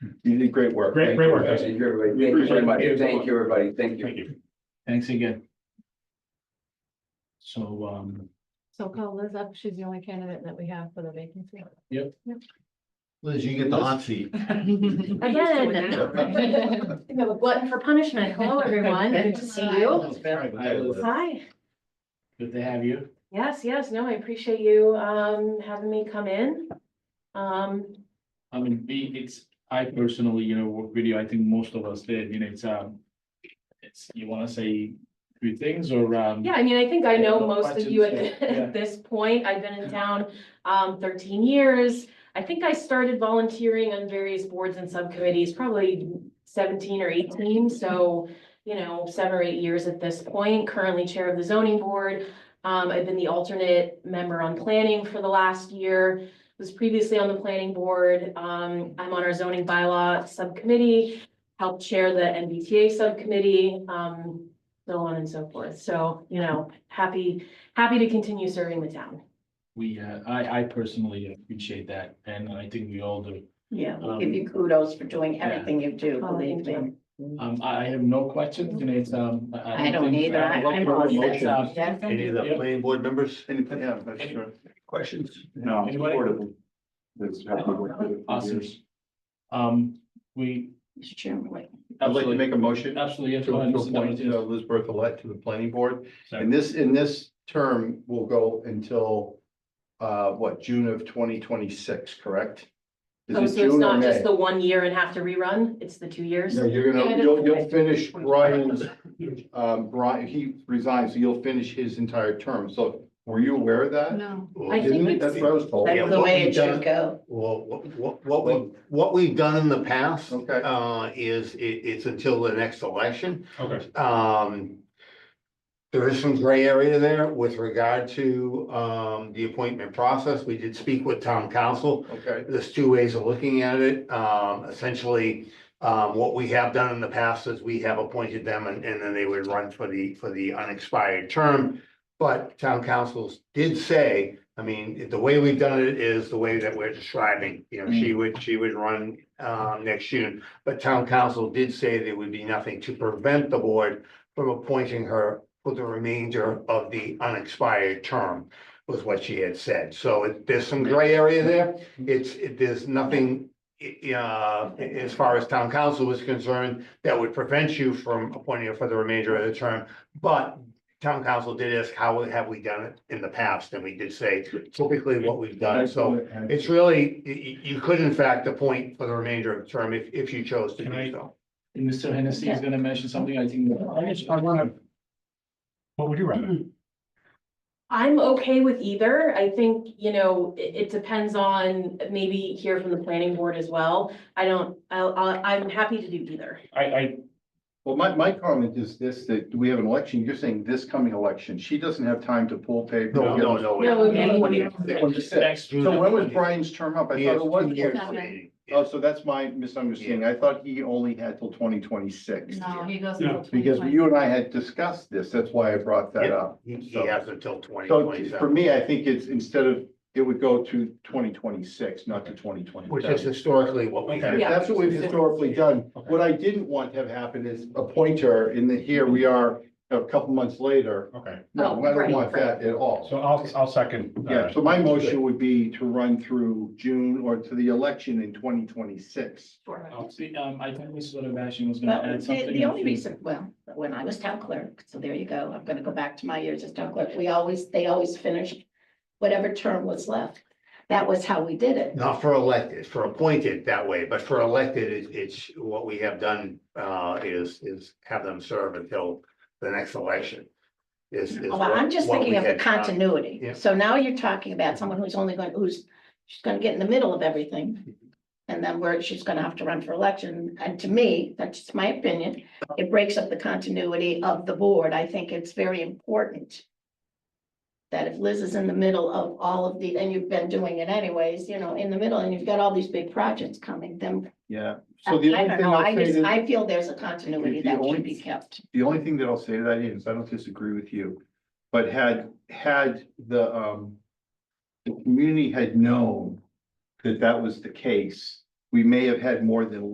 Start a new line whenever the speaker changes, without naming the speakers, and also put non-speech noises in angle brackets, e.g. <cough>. You did great work.
Great- great work.
Thank you, everybody. Thank you, everybody. Thank you, everybody. Thank you.
Thank you.
Thanks again. So, um,
So call Liz up, she's the only candidate that we have for the vacancy.
Liz, you get the hot
<laughs>
seat.
Again. You have a glutton for punishment. Hello, everyone. Good to see you.
I was-
Hi.
good to have you.
Yes, yes, no, I appreciate you um having me come in. Um,
I mean, me, it's, I personally, you know, work video, I think most of us did, you know, it's, um. It's, you wanna say two things or, um?
yeah, I mean, I think I know
No
most of you
questions,
<laughs> at
yeah, yeah.
at this point. I've been in town um thirteen years. I think I started volunteering on various boards and subcommittees, probably seventeen or eighteen, so you know, seven or eight years at this point, currently chair of the zoning board. Um, I've been the alternate member on planning for the last year, was previously on the planning board. Um, I'm on our zoning bylaw subcommittee, helped chair the MBTA subcommittee, um, so on and so forth. So, you know, happy, happy to continue serving the town.
We, uh, I, I personally appreciate that, and I think we all do.
Yeah, we
Um,
give you kudos for doing
yeah.
everything you do,
Oh,
believe
thank
me.
Um, I, I have no questions, you know, it's, um.
I don't
think-
either. I-
I'd love
I'm
for a
all set.
motion.
Yeah.
Any of the planning board members? Anything? Yeah, that's sure.
Questions? No.
Anybody? Awesome. Um, we
Mr. Chairman, wait.
I'd like to
absolutely,
make a motion to
absolutely, yes,
to
go ahead, Mr.
appoint uh,
Douglas,
Liz Bertholet to the planning board.
yes.
And this, in this term will go until, uh, what, June of twenty twenty-six, correct? Is
Oh,
it
so it's
June or
not just
May?
the one year and have to rerun, it's the two years?
No, you're gonna, you'll, you'll finish Brian's, um, Brian, he resigns, so you'll finish his entire term. So were you aware of
Uh,
that?
No.
Well,
I think
Didn't it?
it's-
That's what I was told.
Yeah,
That's the
what
way
we've
it should
done-
go.
what, what, what we, what we've done in the past.
Okay.
Uh, is, it, it's until the next election.
Okay,
Um. There is some gray area there with regard to, um, the appointment process. We did speak with town council.
Okay,
There's two ways of looking at it. Um, essentially, um, what we have done in the past is we have appointed them and, and then they would run for the, for the unexpired term. But town councils did say, I mean, the way we've done it is the way that we're describing, you know, she would, she would run, um, next June. But town council did say there would be nothing to prevent the board from appointing her for the remainder of the unexpired term was what she had said. So it- there's some gray area there. It's, it- there's nothing, i- uh, as far as town council was concerned, that would prevent you from appointing her for the remainder of the term. But town council did ask, how have we done it in the past? And we did say typically what we've done. uh, So it's really, you, you could in fact appoint for the remainder of the term if, if you chose to
Can I-
do so.
And Mr. Hennessy is gonna mention something, I think.
I wanna. What would you rather?
I'm okay with either. I think, you know, it, it depends on maybe hear from the planning board as well. I don't, I'll, I'll, I'm happy to do either.
I, I,
well, my, my comment is this, that we have an election, you're saying this coming election, she doesn't have time to pull paper.
No, no, no. we-
No, okay.
Next
So when was Brian's term up? I
He
thought
has
it was.
two years
twenty-
remaining.
Oh, so that's my misunderstanding, I thought he only had till twenty twenty-six.
No, he goes.
No,
until
Because
2020.
you and I had discussed this, that's why I brought that
Yeah.
up.
He, he
So-
has until twenty
So
twenty
for
seven,
me, I think it's instead of, it would go to twenty twenty-six, not to twenty twenty.
which is historically what we have.
Yeah.
That's what we've historically done.
Okay.
What I didn't want to have happen is appoint her in the, here we are a couple months later.
okay,
No,
Oh,
I don't
right,
want that at all.
so I'll, I'll second. uh,
Yeah, so my motion would be to run through June or to the election in twenty twenty-six.
See, um, I think Mrs. Sebastian was gonna
Well,
add
the,
something.
the only reason, well, when I was town clerk, so there you go, I'm gonna go back to my years as town clerk, we always, they always finished whatever term was left. That was how we did it.
Not for elected, for appointed that way, but for elected, it's, it's what we have done, uh, is, is have them serve until the next election. Is, is.
Well,
what-
I'm just
what
thinking
we
of the
had uh, done.
continuity.
Yeah.
So now you're talking about someone who's only going, who's, she's gonna get in the middle of
Mm-hmm.
everything. And then where she's gonna have to run for election. And to me, that's just my opinion, it breaks up the continuity of the board. I think it's very important. That if Liz is in the middle of all of the, and you've been doing it anyways, you know, in the middle and you've got all these big projects coming, then.
Yeah.
I
So the
I
only
don't
thing
know,
I'll
I
say
just,
to-
I feel there's a continuity
The
that
only-
should be kept.
the only thing that I'll say to that is, I don't disagree with you, but had, had the, um. The community had known that that was the case, we may have had more than